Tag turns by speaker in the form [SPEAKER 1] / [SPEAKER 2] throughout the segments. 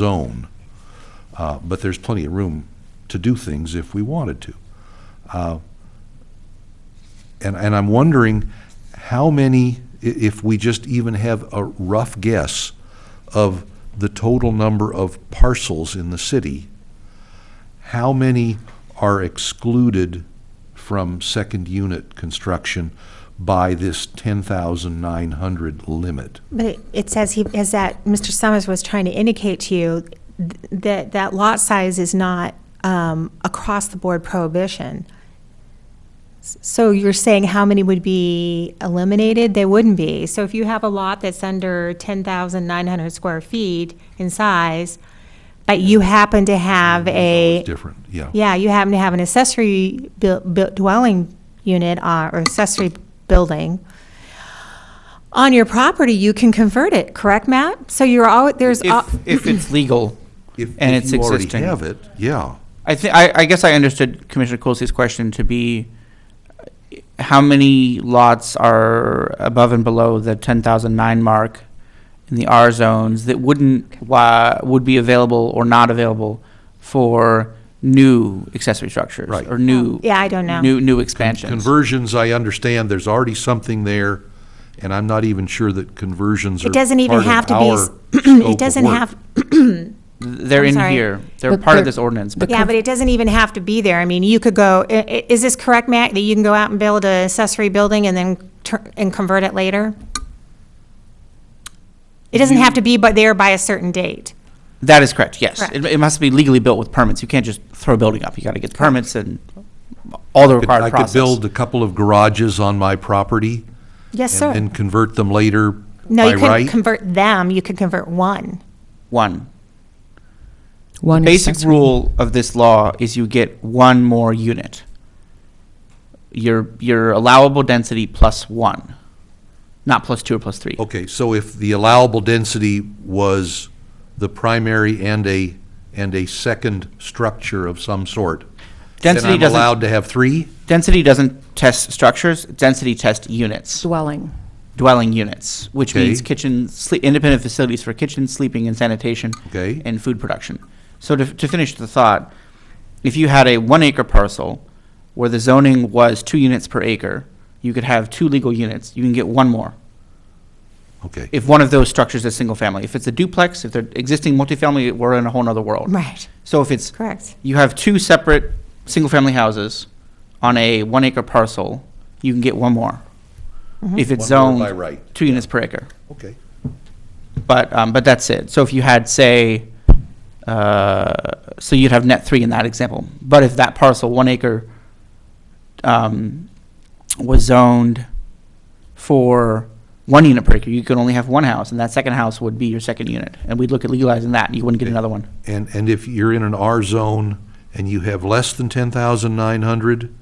[SPEAKER 1] zone, uh, but there's plenty of room to do things if we wanted to. Uh, And, and I'm wondering how many, i- if we just even have a rough guess of the total number of parcels in the city, how many are excluded from second unit construction by this 10,900 limit?
[SPEAKER 2] But it- it says he, as that Mr. Summers was trying to indicate to you, th- that, that lot size is not um, across-the-board prohibition. S- So you're saying how many would be eliminated? They wouldn't be. So if you have a lot that's under 10,900 square feet in size, but you happen to have a,
[SPEAKER 1] It's different, yeah.
[SPEAKER 2] yeah, you happen to have an accessory bu- bu- dwelling unit uh, or accessory building on your property, you can convert it, correct, Matt? So you're all, there's, al-
[SPEAKER 3] If, if it's legal
[SPEAKER 1] If-
[SPEAKER 3] and
[SPEAKER 1] If
[SPEAKER 3] it's
[SPEAKER 1] you
[SPEAKER 3] existing.
[SPEAKER 1] already have it, yeah.
[SPEAKER 3] I think, I, I guess I understood Commissioner Coolsey's question to be, uh, how many lots are above and below the ten thousand nine mark in the R zones that wouldn't, wa- would be available or not available for new accessory structures?
[SPEAKER 1] Right.
[SPEAKER 3] Or new.
[SPEAKER 2] yeah, I don't know.
[SPEAKER 3] New, new expansions.
[SPEAKER 1] Conversions, I understand, there's already something there, and I'm not even sure that conversions are
[SPEAKER 2] It doesn't even
[SPEAKER 1] part of
[SPEAKER 2] have to be,
[SPEAKER 1] our
[SPEAKER 2] s-
[SPEAKER 1] scope
[SPEAKER 2] it
[SPEAKER 1] of
[SPEAKER 2] doesn't
[SPEAKER 1] work.
[SPEAKER 2] have,
[SPEAKER 3] They're
[SPEAKER 2] I'm
[SPEAKER 3] in
[SPEAKER 2] sorry.
[SPEAKER 3] here. They're
[SPEAKER 4] But
[SPEAKER 3] part of
[SPEAKER 4] they're-
[SPEAKER 3] this ordinance, but
[SPEAKER 2] yeah, but it doesn't even have to be there. I mean, you could go, i- i- is this correct, Matt, that you can go out and build an accessory building and then, tur- and convert it later? It doesn't have to be but there by a certain date.
[SPEAKER 3] That is correct, yes.
[SPEAKER 2] Correct.
[SPEAKER 3] It, it must be legally built with permits. You can't just throw a building up. You gotta get the permits and all the required
[SPEAKER 1] I could
[SPEAKER 3] process.
[SPEAKER 1] build a couple of garages on my property
[SPEAKER 2] Yes,
[SPEAKER 1] and
[SPEAKER 2] sir.
[SPEAKER 1] then convert them later
[SPEAKER 2] No,
[SPEAKER 1] by
[SPEAKER 2] you couldn't
[SPEAKER 1] right?
[SPEAKER 2] convert them, you could convert one.
[SPEAKER 3] One.
[SPEAKER 4] One
[SPEAKER 3] Basic
[SPEAKER 4] accessory.
[SPEAKER 3] rule of this law is you get one more unit. Your, your allowable density plus one, not plus two or plus three.
[SPEAKER 1] Okay, so if the allowable density was the primary and a, and a second structure of some sort, then
[SPEAKER 3] Density
[SPEAKER 1] I'm
[SPEAKER 3] doesn't,
[SPEAKER 1] allowed to have three?
[SPEAKER 3] density doesn't test structures, density tests units,
[SPEAKER 4] dwelling.
[SPEAKER 3] dwelling units, which
[SPEAKER 1] Okay.
[SPEAKER 3] means kitchen, sle- independent facilities for kitchen, sleeping, and sanitation.
[SPEAKER 1] Okay.
[SPEAKER 3] and food production. So to, to finish the thought, if you had a one acre parcel where the zoning was two units per acre, you could have two legal units, you can get one more.
[SPEAKER 1] Okay.
[SPEAKER 3] If one of those structures is single family, if it's a duplex, if they're existing multifamily, we're in a whole nother world.
[SPEAKER 2] Right.
[SPEAKER 3] So if it's,
[SPEAKER 2] Correct.
[SPEAKER 3] you have two separate single family houses on a one acre parcel, you can get one more. If it's
[SPEAKER 1] One more by
[SPEAKER 3] zoned,
[SPEAKER 1] right,
[SPEAKER 3] two units per acre.
[SPEAKER 1] Okay.
[SPEAKER 3] But, um, but that's it. So if you had, say, uh, so you'd have net three in that example. But if that parcel, one acre, um, was zoned for one unit per acre, you could only have one house, and that second house would be your second unit. And we'd look at legalizing that, and you wouldn't get another one.
[SPEAKER 1] And, and if you're in an R zone and you have less than ten thousand nine hundred,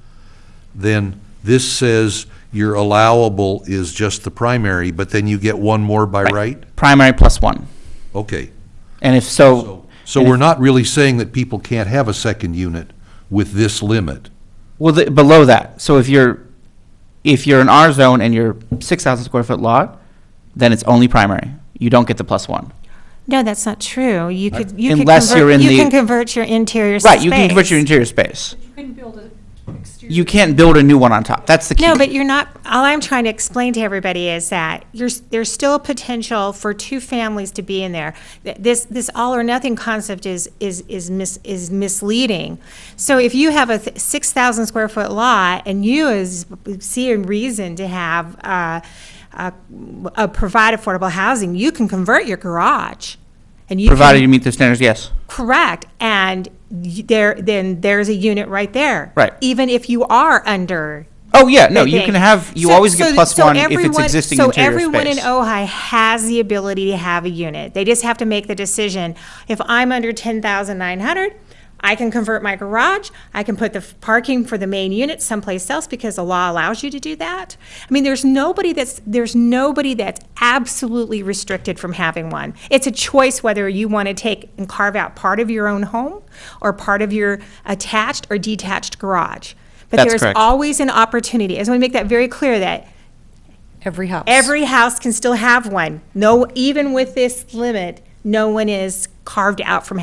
[SPEAKER 1] then this says your allowable is just the primary, but then you get one more by right?
[SPEAKER 3] Primary plus one.
[SPEAKER 1] Okay.
[SPEAKER 3] And if so,
[SPEAKER 1] So we're not really saying that people can't have a second unit with this limit.
[SPEAKER 3] well, the, below that, so if you're, if you're an R zone and you're six thousand square foot lot, then it's only primary. You don't get the plus one.
[SPEAKER 2] No, that's not true. You could, you could
[SPEAKER 3] Unless you're
[SPEAKER 2] convert,
[SPEAKER 3] in
[SPEAKER 2] you
[SPEAKER 3] the-
[SPEAKER 2] can convert your interior space.
[SPEAKER 3] Right, you can convert your interior space.
[SPEAKER 5] You couldn't build a exterior.
[SPEAKER 3] You can't build a new one on top. That's the key.
[SPEAKER 2] No, but you're not, all I'm trying to explain to everybody is that you're, there's still a potential for two families to be in there. Th- This, this all or nothing concept is, is, is mis, is misleading. So if you have a six thousand square foot lot and you is, see a reason to have, uh, uh, uh, provide affordable housing, you can convert your garage. and you can-
[SPEAKER 3] Provided you meet the standards, yes.
[SPEAKER 2] Correct, and y- there, then there's a unit right there.
[SPEAKER 3] Right.
[SPEAKER 2] Even if you are under.
[SPEAKER 3] Oh, yeah, no,
[SPEAKER 2] the
[SPEAKER 3] you
[SPEAKER 2] thing.
[SPEAKER 3] can have, you
[SPEAKER 2] So-
[SPEAKER 3] always get
[SPEAKER 2] so-
[SPEAKER 3] plus
[SPEAKER 2] so
[SPEAKER 3] one if it's
[SPEAKER 2] everyone-
[SPEAKER 3] existing interior
[SPEAKER 2] So everyone in
[SPEAKER 3] space.
[SPEAKER 2] Ojai has the ability to have a unit. They just have to make the decision. If I'm under ten thousand nine hundred, I can convert my garage, I can put the f- parking for the main unit someplace else because the law allows you to do that. I mean, there's nobody that's, there's nobody that's absolutely restricted from having one. It's a choice whether you want to take and carve out part of your own home or part of your attached or detached garage. But
[SPEAKER 3] That's
[SPEAKER 2] there's
[SPEAKER 3] correct.
[SPEAKER 2] always an opportunity. I just want to make that very clear that
[SPEAKER 4] Every house.
[SPEAKER 2] every house can still have one. No, even with this limit, no one is carved out from